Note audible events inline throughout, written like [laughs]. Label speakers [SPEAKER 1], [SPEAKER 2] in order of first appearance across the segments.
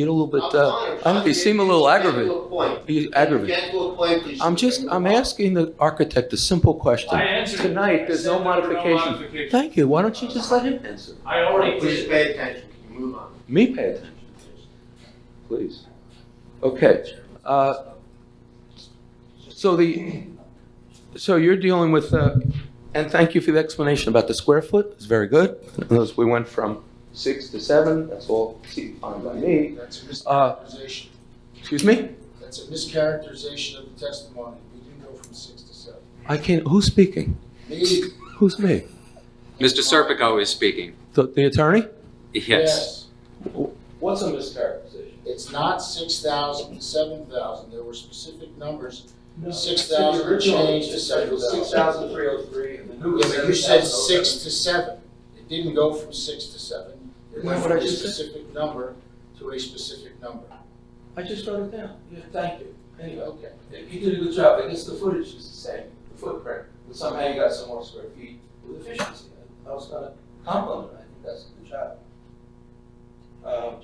[SPEAKER 1] You're a little bit, uh,
[SPEAKER 2] I'm fine.
[SPEAKER 1] you seem a little
[SPEAKER 2] If you get
[SPEAKER 1] aggravated.
[SPEAKER 2] to a point-
[SPEAKER 1] You
[SPEAKER 2] if
[SPEAKER 1] aggravated.
[SPEAKER 2] You get to a point, please.
[SPEAKER 1] I'm just, I'm asking the architect a simple question.
[SPEAKER 3] I answered.
[SPEAKER 1] Tonight, there's no
[SPEAKER 3] I said there were
[SPEAKER 1] modification.
[SPEAKER 3] modifications.
[SPEAKER 1] Thank you, why don't you just let him answer?
[SPEAKER 3] I already
[SPEAKER 2] Please
[SPEAKER 3] did.
[SPEAKER 2] pay attention, Can you move on.
[SPEAKER 1] Me pay attention, please. Okay, uh, so the, so you're dealing with, uh, and thank you for the explanation about the square foot, it's very good. Notice we went from six to seven, that's all fine by me.
[SPEAKER 4] That's a
[SPEAKER 1] Uh,
[SPEAKER 4] mischaracterization.
[SPEAKER 1] Excuse me?
[SPEAKER 4] That's a mischaracterization of the testimony. We didn't go from six to seven.
[SPEAKER 1] I can't, who's speaking?
[SPEAKER 4] Me?
[SPEAKER 1] Who's me?
[SPEAKER 5] Mr. Serpico is speaking.
[SPEAKER 1] The, the attorney?
[SPEAKER 5] Yes.
[SPEAKER 1] What's a mischaracterization?
[SPEAKER 4] It's not six thousand to seven thousand. There were specific numbers. Six
[SPEAKER 1] The
[SPEAKER 4] thousand
[SPEAKER 1] original
[SPEAKER 4] changed to seven
[SPEAKER 1] Six
[SPEAKER 4] thousand.
[SPEAKER 1] thousand three oh three, and the new
[SPEAKER 4] Yeah,
[SPEAKER 1] is
[SPEAKER 4] but you said six to seven. It didn't go from six to seven. It
[SPEAKER 1] Isn't
[SPEAKER 4] went
[SPEAKER 1] that
[SPEAKER 4] from
[SPEAKER 1] what I
[SPEAKER 4] a
[SPEAKER 1] just said?
[SPEAKER 4] specific number to a specific number.
[SPEAKER 1] I just wrote it down, yeah, thank you. Anyway,
[SPEAKER 4] Okay.
[SPEAKER 1] you did a good job, I guess the footage is the same, the footprint, but somehow you got some more square feet with efficiency. I was gonna compliment, I think that's a good job. Um,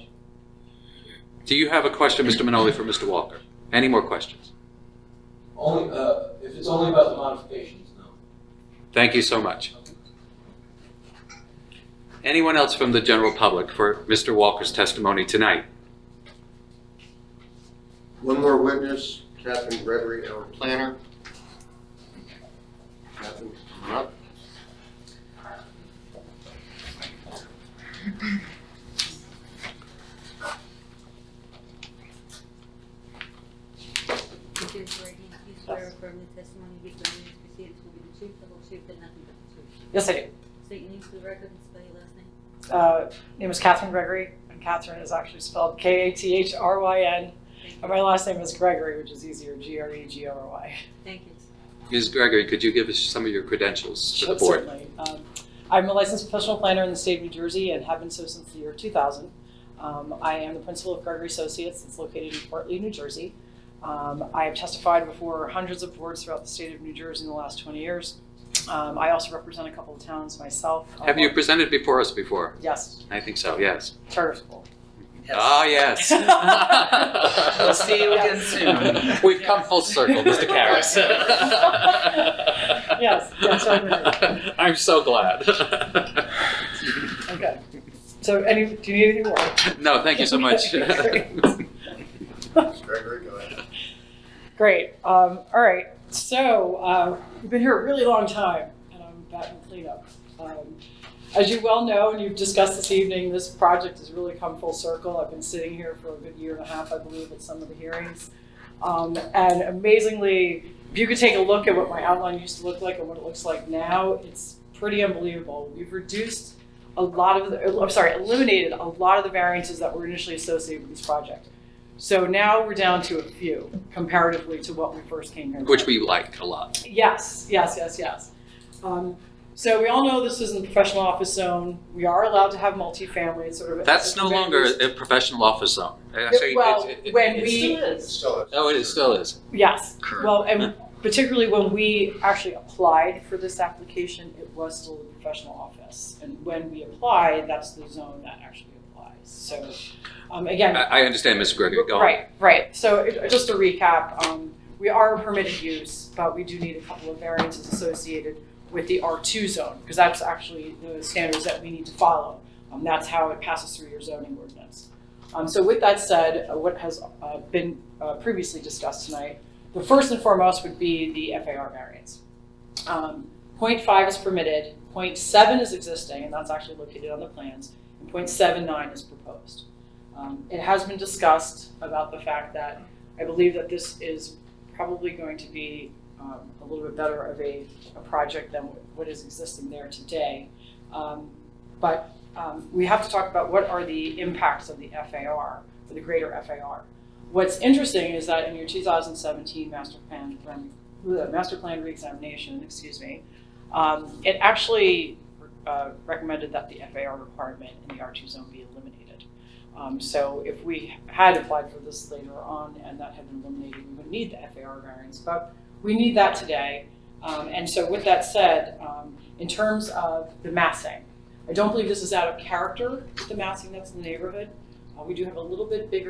[SPEAKER 5] Do you have a question, Mr. Minoli, for Mr. Walker? Any more questions?
[SPEAKER 1] only, uh, if it's only about the modifications, no.
[SPEAKER 5] Thank you so much. Anyone else from the general public for Mr. Walker's testimony tonight?
[SPEAKER 2] One more witness, Catherine Gregory, our planner. Catherine, come on up.
[SPEAKER 6] Peter Brady, you swear affirm the testimony you give during these proceedings will be the truth, the whole truth, and nothing but the truth.
[SPEAKER 7] Yes, I do.
[SPEAKER 6] State your name for the record and spell your last name.
[SPEAKER 7] Uh, name is Catherine Gregory, and Catherine is actually spelled K-A-T-H-R-Y-N. And my last name is Gregory, which is easier, E G-R-E-G-R-Y.
[SPEAKER 5] [laughs]
[SPEAKER 6] Thank you.
[SPEAKER 5] Ms. Gregory, could you give us some of your credentials to the board?
[SPEAKER 7] Certainly. Um, I'm a licensed professional planner in the state of New Jersey and have been so since the year 2000. Um, I am the principal of Gregory Associates. It's located in Fort Lee, New Jersey. Um, I have testified before hundreds of boards throughout the state of New Jersey in the last 20 years. Um, I also represent a couple of towns myself.
[SPEAKER 5] Have you presented before us before?
[SPEAKER 7] Yes,
[SPEAKER 5] I think so, yes.
[SPEAKER 7] charter school.
[SPEAKER 5] Ah, yes.
[SPEAKER 7] [laughs] We'll see you again soon.
[SPEAKER 5] Ah, We've come full circle,
[SPEAKER 7] [laughs]
[SPEAKER 5] Mr. Karas.
[SPEAKER 7] Yes, yes, I agree.
[SPEAKER 5] I'm so glad.
[SPEAKER 7] Okay. So any, do you need anything more?
[SPEAKER 5] No, thank you so
[SPEAKER 7] [laughs]
[SPEAKER 5] much.
[SPEAKER 2] Ms. Gregory, go ahead.
[SPEAKER 7] Great. Um, all right. So uh, we've been here a really long time, and I'm back in cleanup. Um, as you well know, and you've discussed this evening, this project has really come full circle. I've been sitting here for a good year and a half, I believe, at some of the hearings. Um, and amazingly, if you could take a look at what my outline used to look like and what it looks like now, it's pretty unbelievable. We've reduced a lot of the, I'm sorry, eliminated a lot of the variances that were initially associated with this project. So now we're down to a few comparatively to what we first came here.
[SPEAKER 5] Which
[SPEAKER 7] with.
[SPEAKER 5] we like a lot.
[SPEAKER 7] Yes, yes, yes, yes. Um, so we all know this isn't a professional office zone. We are allowed to have multifamily. It's sort of
[SPEAKER 5] That's no longer a professional office zone. Actually,
[SPEAKER 7] well,
[SPEAKER 5] it- it-
[SPEAKER 7] when
[SPEAKER 5] it's-
[SPEAKER 7] we
[SPEAKER 4] It's still a-
[SPEAKER 5] Oh, it is, still is.
[SPEAKER 7] yes,
[SPEAKER 5] Correct.
[SPEAKER 7] well, and particularly when we actually applied for this application, it was still a professional office. And when we applied, that's the zone that actually applies. So um, again,
[SPEAKER 5] I, I understand, Mr. Gregory, go on.
[SPEAKER 7] Right, right. So it- just to recap, um, we are a permitted use, but we do need a couple of variances associated with the R2 zone, because that's actually the standards that we need to follow. Um, That's how it passes through your zoning ordinance. Um, So with that said, uh, what has uh, been uh, previously discussed tonight, the first and foremost would be the FAR variance. Um, Point .5 is permitted, point .7 is existing, and that's actually located on the plans, and point .79 is proposed. Um, It has been discussed about the fact that I believe that this is probably going to be um, a little bit better of a, a project than what is existing there today. Um, But um, we have to talk about what are the impacts of the FAR, for the greater FAR. What's interesting is that in your 2017 master plan, plan- uh, master plan reexamination, excuse me, um, it actually uh, recommended that the FAR requirement in the R2 zone be eliminated. Um, so if we had applied for this later on and that had been eliminated, we would need the FAR variance, but we need that today. Um, and so with that said, um, in terms of the massing, I don't believe this is out of character, the massing that's in the neighborhood. Uh, we do have a little bit bigger